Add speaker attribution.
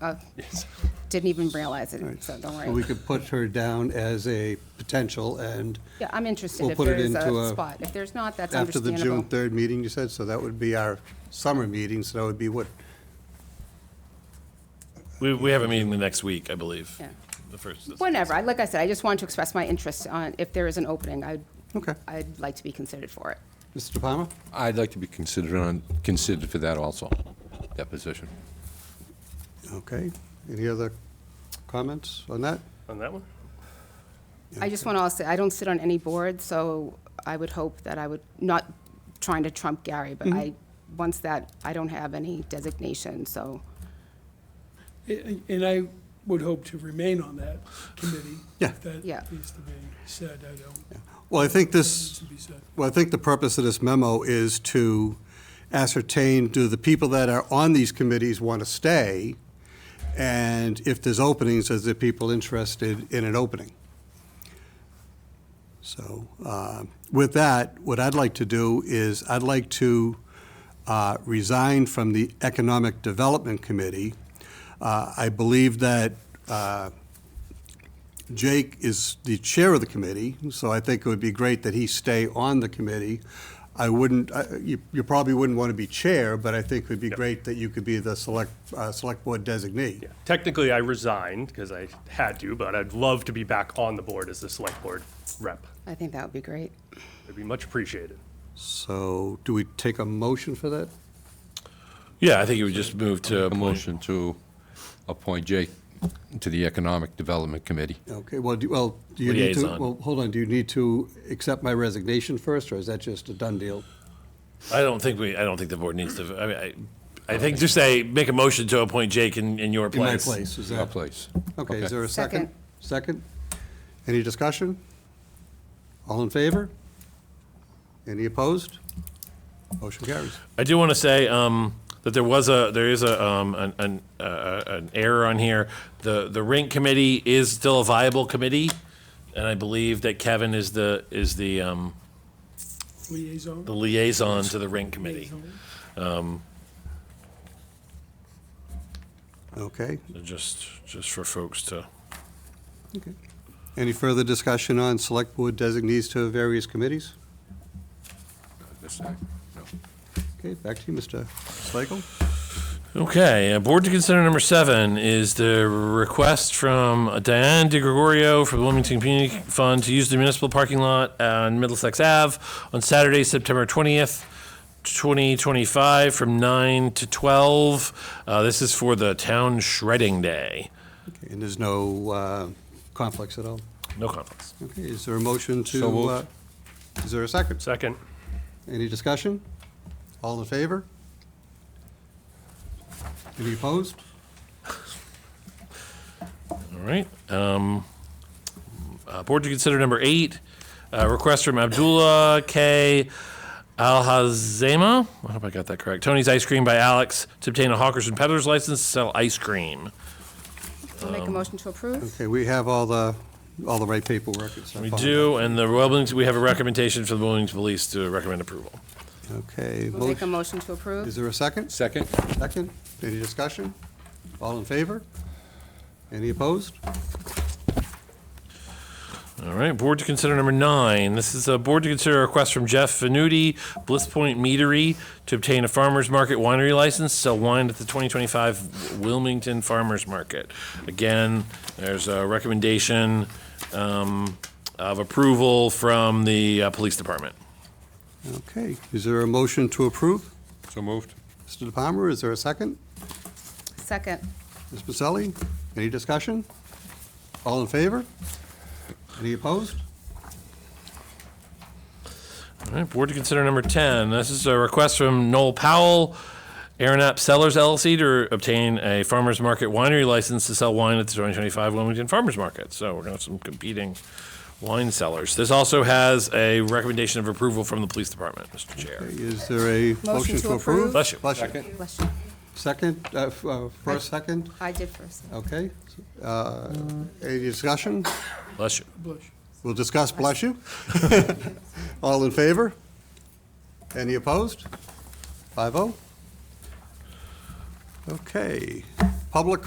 Speaker 1: Uh, Didn't even realize it, so don't
Speaker 2: So we
Speaker 1: worry.
Speaker 2: could put her down as a potential, and
Speaker 1: Yeah, I'm interested
Speaker 2: we'll
Speaker 1: if
Speaker 2: put
Speaker 1: there
Speaker 2: it
Speaker 1: is
Speaker 2: into
Speaker 1: a
Speaker 2: a-
Speaker 1: spot. If there's not, that's
Speaker 2: after the June
Speaker 1: understandable.
Speaker 2: 3rd meeting, you said, so that would be our summer meeting, so that would be what,
Speaker 3: We, we have a meeting the next week, I believe.
Speaker 1: Yeah.
Speaker 3: The first.
Speaker 1: Whenever, I- like I said, I just wanted to express my interest on, if there is an opening, I'd,
Speaker 2: okay.
Speaker 1: I'd like to be considered for it.
Speaker 2: Mr. Palmer?
Speaker 4: I'd like to be considered on, considered for that also, that position.
Speaker 2: Okay. Any other comments on that?
Speaker 3: On that one?
Speaker 1: I just want to also, I don't sit on any board, so I would hope that I would, not trying to trump Gary, but I,
Speaker 2: Mm-hmm.
Speaker 1: once that, I don't have any designation, so,
Speaker 5: And and I would hope to remain on that committee.
Speaker 2: Yeah.
Speaker 5: If that
Speaker 1: Yeah.
Speaker 5: needs to be said, I don't,
Speaker 2: Well, I think
Speaker 5: needs
Speaker 2: this,
Speaker 5: to be said.
Speaker 2: well, I think the purpose of this memo is to ascertain, do the people that are on these committees want to stay? And if there's openings, is there people interested in an opening? So uh, with that, what I'd like to do is, I'd like to uh, resign from the Economic Development Committee. Uh, I believe that uh, Jake is the chair of the committee, so I think it would be great that he stay on the committee. I wouldn't, I- you you probably wouldn't want to be chair, but I think it would be great that you could be the select, uh, select board designee.
Speaker 6: Yeah. Technically, I resigned because I had to, but I'd love to be back on the board as the select board rep.
Speaker 1: I think that would be great.
Speaker 6: It'd be much appreciated.
Speaker 2: So do we take a motion for that?
Speaker 3: Yeah, I think it would just move to.
Speaker 4: A motion to appoint Jake to the Economic Development Committee.
Speaker 2: Okay, well, do, well, do you need to,
Speaker 3: Liaison.
Speaker 2: well, hold on, do you need to accept my resignation first, or is that just a done deal?
Speaker 3: I don't think we, I don't think the board needs to, I mean, I, I think just say, make a motion to appoint Jake in, in your
Speaker 2: In my
Speaker 3: place.
Speaker 2: place, is
Speaker 4: Our
Speaker 2: that?
Speaker 4: place.
Speaker 2: Okay, is there a second?
Speaker 1: Second.
Speaker 2: Second? Any discussion? All in favor? Any opposed? Motion carries.
Speaker 3: I do want to say um, that there was a, there is a, um, an, an, uh, an error on here. The, the rink committee is still a viable committee, and I believe that Kevin is the, is the, um,
Speaker 5: Liaison?
Speaker 3: the liaison to the rink committee.
Speaker 5: Liaison.
Speaker 2: Okay.
Speaker 3: Just, just for folks to.
Speaker 2: Any further discussion on select board designees to various committees?
Speaker 4: This side. No.
Speaker 2: Okay, back to you, Mr. Slagle.
Speaker 3: Okay, uh, board to consider number seven is the request from Diane DeGregorio for the Wilmington Community Fund to use the municipal parking lot on Middlesex Ave on Saturday, September 20th, 2025, from 9 to 12. Uh, This is for the town shredding day.
Speaker 2: Okay, And there's no uh, conflicts at all?
Speaker 3: No conflicts.
Speaker 2: Okay, is there a motion to?
Speaker 4: So moved.
Speaker 2: uh, Is there a second?
Speaker 6: Second,
Speaker 2: Any discussion? All in favor? Any opposed?
Speaker 3: All right. um, uh, Board to consider number eight, uh, request from Abdullah K. Alhazema. I hope I got that correct. Tony's Ice Cream by Alex to obtain a hawkers and peddlers license to sell ice cream.
Speaker 1: I'll make a motion to approve.
Speaker 2: Okay, we have all the, all the right paperwork and stuff.
Speaker 3: We
Speaker 2: on
Speaker 3: do, and the Wellington, we have a recommendation from the Wellington Police to recommend approval.
Speaker 2: that. Okay.
Speaker 1: We'll make a motion
Speaker 2: motion-
Speaker 1: to
Speaker 2: Is
Speaker 1: approve.
Speaker 2: there a second?
Speaker 4: Second?
Speaker 2: Second? Any discussion? All in favor? Any opposed?
Speaker 3: All right, board to consider number nine. This is a board to consider a request from Jeff Venuti, Bliss Point Meadery, to obtain a farmer's market winery license, sell wine at the 2025 Wilmington Farmers Market. Again, there's a recommendation um, of approval from the uh, police department.
Speaker 2: Okay, is there a motion to approve?
Speaker 4: So moved.
Speaker 2: Mr. DePalmer, is there a second?
Speaker 1: Second.
Speaker 2: Ms. Pacelli, any discussion? All in favor? Any opposed?
Speaker 3: All right, board to consider number 10. This is a request from Noel Powell, Aaron Sellers LLC, to obtain a farmer's market winery license to sell wine at the 2025 Wilmington Farmers Market. So we're going to have some competing wine sellers. This also has a recommendation of approval from the police department, Mr. Chair.
Speaker 2: Is there a motion to approve?
Speaker 3: Bless you.
Speaker 2: Bless you.
Speaker 4: Second.
Speaker 1: Bless you.
Speaker 2: Second, uh, f- uh, first, second,
Speaker 1: I did first.
Speaker 2: okay. Uh, Any discussion?
Speaker 3: Bless you.
Speaker 5: Bush.
Speaker 2: We'll discuss, bless you. All in favor? Any opposed? Five oh? Okay. Public